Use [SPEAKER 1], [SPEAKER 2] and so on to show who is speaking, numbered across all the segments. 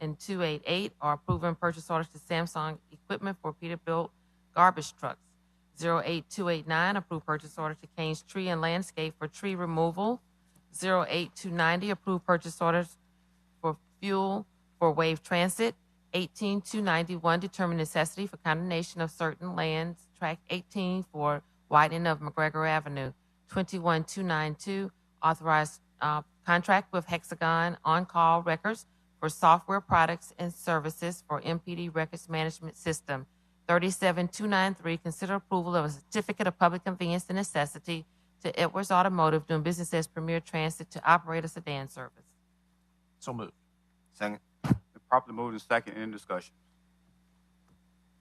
[SPEAKER 1] and 288 are approving purchase orders to Samsung Equipment for Peterbilt garbage trucks. 08289, approved purchase order to Kane's Tree and Landscape for tree removal. 08290, approved purchase orders for fuel for wave transit. 18291, determine necessity for condemnation of certain lands, tract 18 for widening of McGregor Avenue. 21292, authorized uh, contract with Hexagon on-call records for software products and services for MPD records management system. 37293, consider approval of a certificate of public convenience and necessity to Edwards Automotive doing business as Premier Transit to operate a sedan service.
[SPEAKER 2] So moved.
[SPEAKER 3] Second.
[SPEAKER 4] Been properly moved and second, any discussion?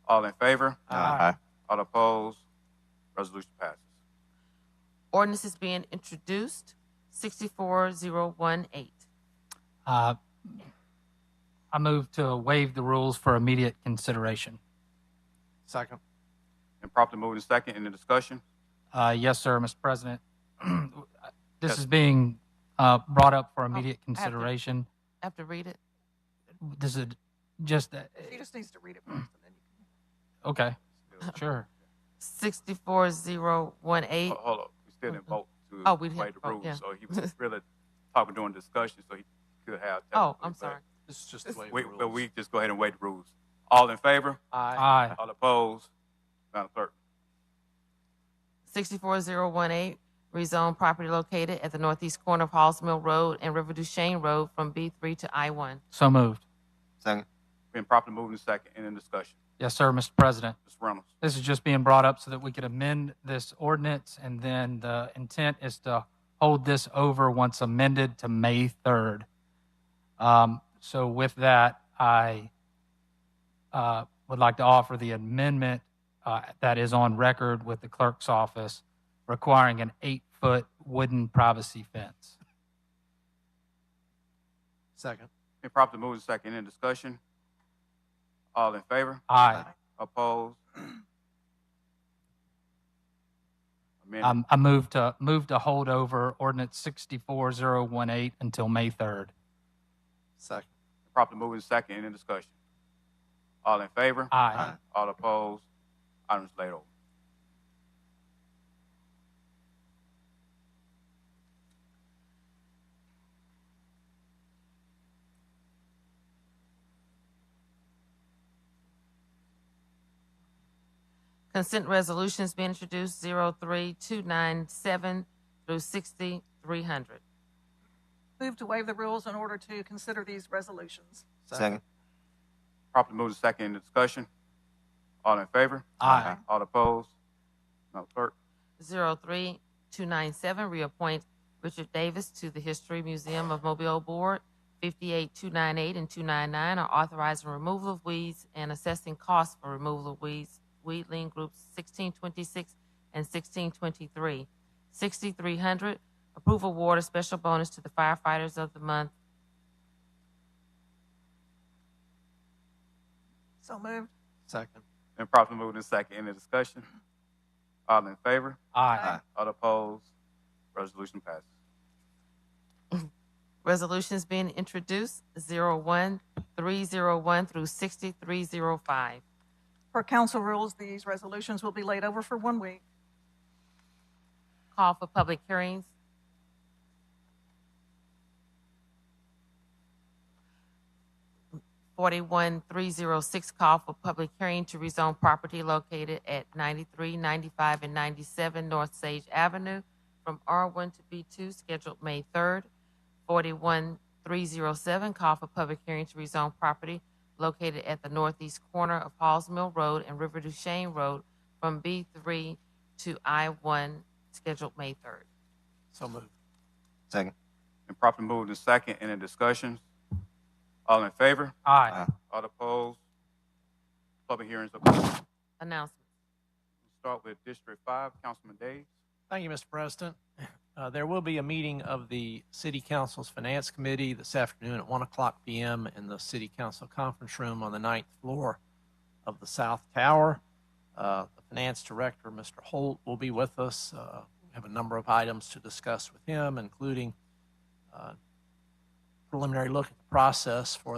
[SPEAKER 4] All in favor?
[SPEAKER 3] Aye.
[SPEAKER 4] All opposed? Resolution passes.
[SPEAKER 1] Ordinance is being introduced, 64018.
[SPEAKER 2] Uh, I move to waive the rules for immediate consideration.
[SPEAKER 5] Second.
[SPEAKER 4] Been properly moved and second, any discussion?
[SPEAKER 2] Uh, yes, sir, Mr. President. This
[SPEAKER 4] Yes.
[SPEAKER 2] is being, uh, brought up for immediate
[SPEAKER 1] I have to-
[SPEAKER 2] consideration.
[SPEAKER 1] I have to read it.
[SPEAKER 2] This is just, uh,
[SPEAKER 5] She just needs to read it first and then you can.
[SPEAKER 2] okay, sure.
[SPEAKER 1] 64018.
[SPEAKER 4] Ho- Hold up, we still didn't vote
[SPEAKER 1] Oh,
[SPEAKER 4] to
[SPEAKER 1] we didn't
[SPEAKER 4] waive the
[SPEAKER 1] vote, yeah.
[SPEAKER 4] rules, so he was really talking during discussion, so he could have.
[SPEAKER 1] Oh,
[SPEAKER 4] technically,
[SPEAKER 1] I'm
[SPEAKER 4] but
[SPEAKER 1] sorry.
[SPEAKER 5] This is just the way
[SPEAKER 4] We, but we just go ahead and waive the rules. All in favor?
[SPEAKER 5] Aye.
[SPEAKER 2] Aye.
[SPEAKER 4] All opposed? Madam Clerk.
[SPEAKER 1] 64018, rezone property located at the northeast corner of Halls Mill Road and River Duchesne Road from B3 to I1.
[SPEAKER 2] So moved.
[SPEAKER 3] Second.
[SPEAKER 4] Been properly moved and second, any discussion?
[SPEAKER 2] Yes, sir, Mr. President.
[SPEAKER 4] Ms. Reynolds.
[SPEAKER 2] This is just being brought up so that we could amend this ordinance, and then the intent is to hold this over once amended to May 3rd. Um, So with that, I uh, would like to offer the amendment uh, that is on record with the clerk's office requiring an eight-foot wooden privacy fence.
[SPEAKER 5] Second.
[SPEAKER 4] Been properly moved and second, any discussion? All in favor?
[SPEAKER 2] Aye.
[SPEAKER 4] Opposed? Amendment,
[SPEAKER 2] Um, I move to, move to hold over ordinance 64018 until May 3rd.
[SPEAKER 5] Second.
[SPEAKER 4] properly moved and second, any discussion? All in favor?
[SPEAKER 2] Aye.
[SPEAKER 4] All opposed? Item is laid over.
[SPEAKER 1] Consent resolutions being introduced, 03297 through 6300.
[SPEAKER 6] Move to waive the rules in order to consider these resolutions.
[SPEAKER 3] Second.
[SPEAKER 4] Properly moved and second, any discussion? All in favor?
[SPEAKER 2] Aye.
[SPEAKER 4] All opposed? Madam Clerk.
[SPEAKER 1] 03297, reappoint Richard Davis to the History Museum of Mobile Board. 58298 and 299 are authorizing removal of weeds and assessing costs for removal of weeds, weed lien groups 1626 and 1623. 6300, approve award of special bonus to the firefighters of the month.
[SPEAKER 6] So moved.
[SPEAKER 5] Second.
[SPEAKER 4] Been properly moved and second, any discussion? All in favor?
[SPEAKER 2] Aye.
[SPEAKER 4] All opposed? Resolution passes.
[SPEAKER 1] Resolutions being introduced, 01301 through 6305.
[SPEAKER 6] Per council rules, these resolutions will be laid over for one week.
[SPEAKER 1] Call for public hearings. Forty-one three zero six, call for public hearing to rezone property located at ninety-three, ninety-five, and ninety-seven North Sage Avenue from R one to B two, scheduled May third. Forty-one three zero seven, call for public hearing to rezone property located at the northeast corner of Halls Mill Road and River Duchesne Road from B three to I one, scheduled May third.
[SPEAKER 5] So moved.
[SPEAKER 3] Second.
[SPEAKER 4] Been properly moved and second, any discussions? All in favor?
[SPEAKER 2] Aye.
[SPEAKER 4] All opposed? Public hearings are closed.
[SPEAKER 1] Announcement.
[SPEAKER 4] Start with District Five, Councilman Days.
[SPEAKER 5] Thank you, Mr. President. Uh, There will be a meeting of the City Council's Finance Committee this afternoon at 1 o'clock PM in the City Council Conference Room on the ninth floor of the South Tower. Uh, The Finance Director, Mr. Holt, will be with us. Uh, We have a number of items to discuss with him, including uh, preliminary look at the process for